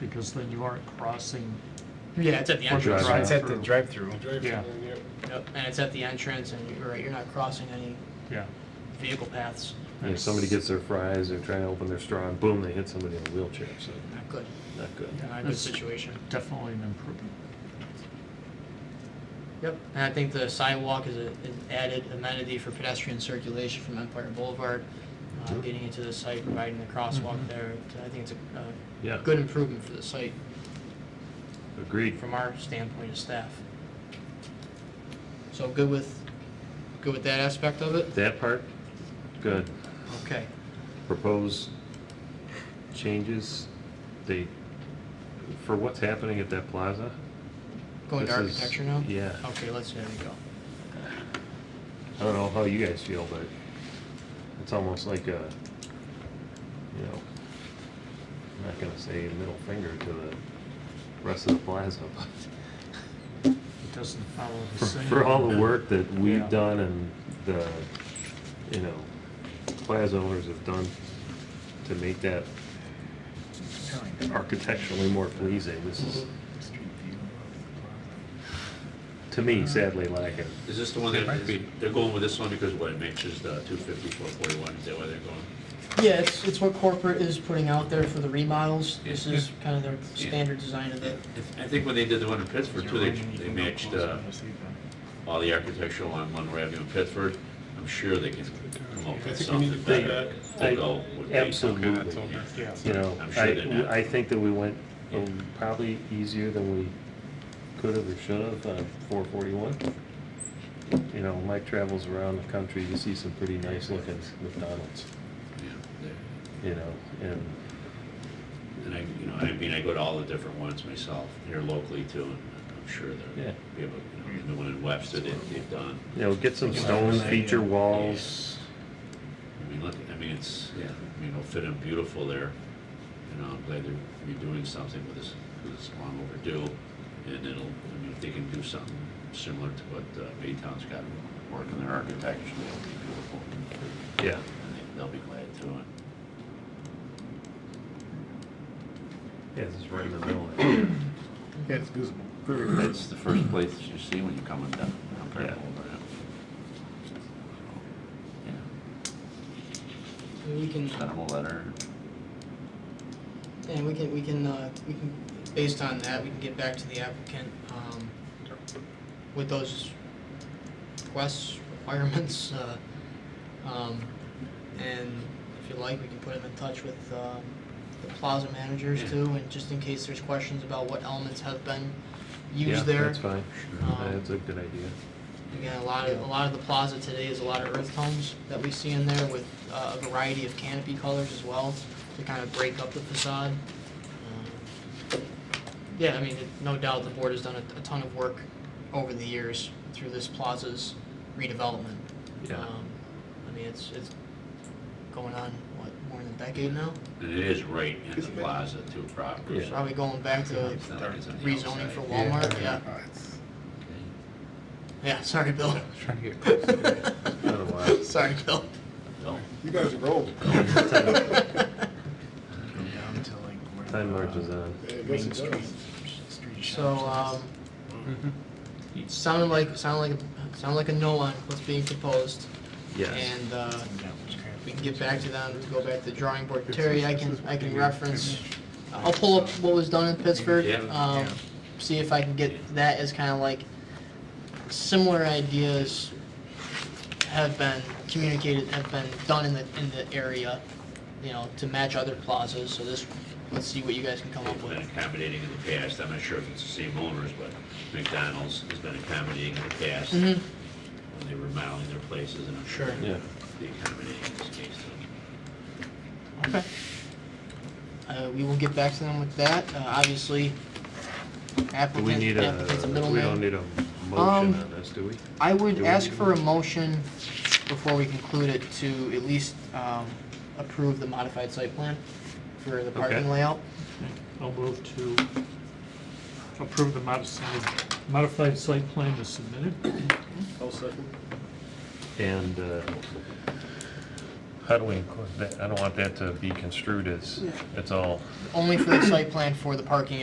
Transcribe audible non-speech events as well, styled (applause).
because then you aren't crossing. Yeah, it's at the for entrance. Drive-thru. It's at the drive. drive-through. Yeah. Yep, and it's at the entrance, and you're right, you're not crossing any Yeah. vehicle paths. If somebody gets their fries, they're trying to open their straw, and boom, they hit somebody in a wheelchair, so Not good. not good. Not a good That's situation. Definitely an improvement. Yep. And I think the sidewalk is a, an added amenity for pedestrian circulation from Empire Boulevard, uh, getting into the site, providing the crosswalk Mhm. there. I think it's a, a Mm-hmm. Yeah. good improvement for the site, Agreed. from our standpoint as staff. So good with, good with that aspect of it? That part, good. Okay. Propose changes, they, for what's happening at that plaza? Going to This is- architecture now? yeah. Okay, let's, there we go. I don't know how you guys feel, but it's almost like a, you know, I'm not gonna say middle finger to the rest of the plaza, (laughs) but It doesn't follow for- the same. for all the work that Yeah. we've done and the, you know, plaza owners have done to make that architecturally more pleasing, this is, to me, sadly lacking. Is this the one that, be- they're going with this one because what, it matches the 250, 441, is that why they're going? Yeah, it's, it's what corporate is putting out there for the remodels. This Yeah. is kind of their Yeah. standard design of it. I think when they did the one in Pittsburgh too, they, they matched uh, all the architectural on Monroe Avenue in Pittsburgh. I'm sure they can come up I with think we need to something do better. I- although it would be- Absolutely. Yeah. You know, I'm sure they're I, not. I think that we went um, probably easier than we could have or should have on four forty-one. You know, Mike travels around the country, you see some pretty nice looking McDonald's, Yeah, they- you know, and, And I, you know, I mean, I go to all the different ones myself, here locally too, and I'm sure Yeah. they're, be able, you know, the one in Webster, they- they've done. you know, get some stone feature walls. I mean, look, I mean, it's, yeah, I mean, it'll fit in beautiful there. You know, I'm glad they're redoing something with this, because it's long overdue. And it'll, I mean, if they can do something similar to what uh, Baytown's got working their architecture, it'll be beautiful. Yeah, And they- they'll be glad to. And yeah, this is right in the (clears throat) middle. Yeah, it's visible. That's the first place you uh, see when you're coming down, down Yeah. Fairfield, right? Yeah, We can, send them a letter. and we can, we can, uh, we can, based on that, we can get back to the applicant, um, with those requests, requirements, uh, um, and if you like, we can put them in touch with, um, the plaza managers Yeah. too, and just in case there's questions about what elements have been Yeah, used there. That's fine, Um, that's a good idea. Again, a lot of, a lot of the plaza today is a lot of earth tones that we see in there with uh, a variety of canopy colors as well to kind of break up the facade. Um, Yeah, I mean, it- no doubt the board has done a, a ton of work over the years through this plaza's redevelopment. Yeah. Um, I mean, it's, it's going on, what, more than a decade now? And it is right in the plaza too proper. Yeah. so Probably going back to it's not like it's on the rezoning outside. for Walmart, yeah. Yeah, sorry, Bill. Not a while. Sorry, Bill. No. You guys are old. Time marches on. Yeah, I guess it does. (laughs) So, um, Mm-hmm. sounded like, sounded like, sounded like a no on what's being proposed. Yes, And, uh, we can get back to them, go back to the drawing board. Terry, I can, I can reference, Uh, I'll pull up what was done in Pittsburgh. Yeah. Um, see if I can get that as kind of like, similar ideas have been communicated, have been done in the, in the area, you know, to match other plazas. So this, let's see what you guys can come up They've been with. accommodating in the past, I'm not sure if it's the same owners, but McDonald's has been accommodating in the past when Mhm. they were remodeling their places, and I'm sure Sure. yeah. they accommodating in this case too. Okay. Uh, we will get back to them with that, uh, obviously. Do we Applicant, need a, applicant's a we don't middleman. need a Um, motion on this, do we? I would do we ask need for a one? motion before we conclude it to at least, um, approve the modified site plan for the parking Okay. layout. I'll move to approve the modified, modified site plan as submitted. I'll second. And uh, How do we include that? I don't want that to be construed as, it's all Only for the site plan for the parking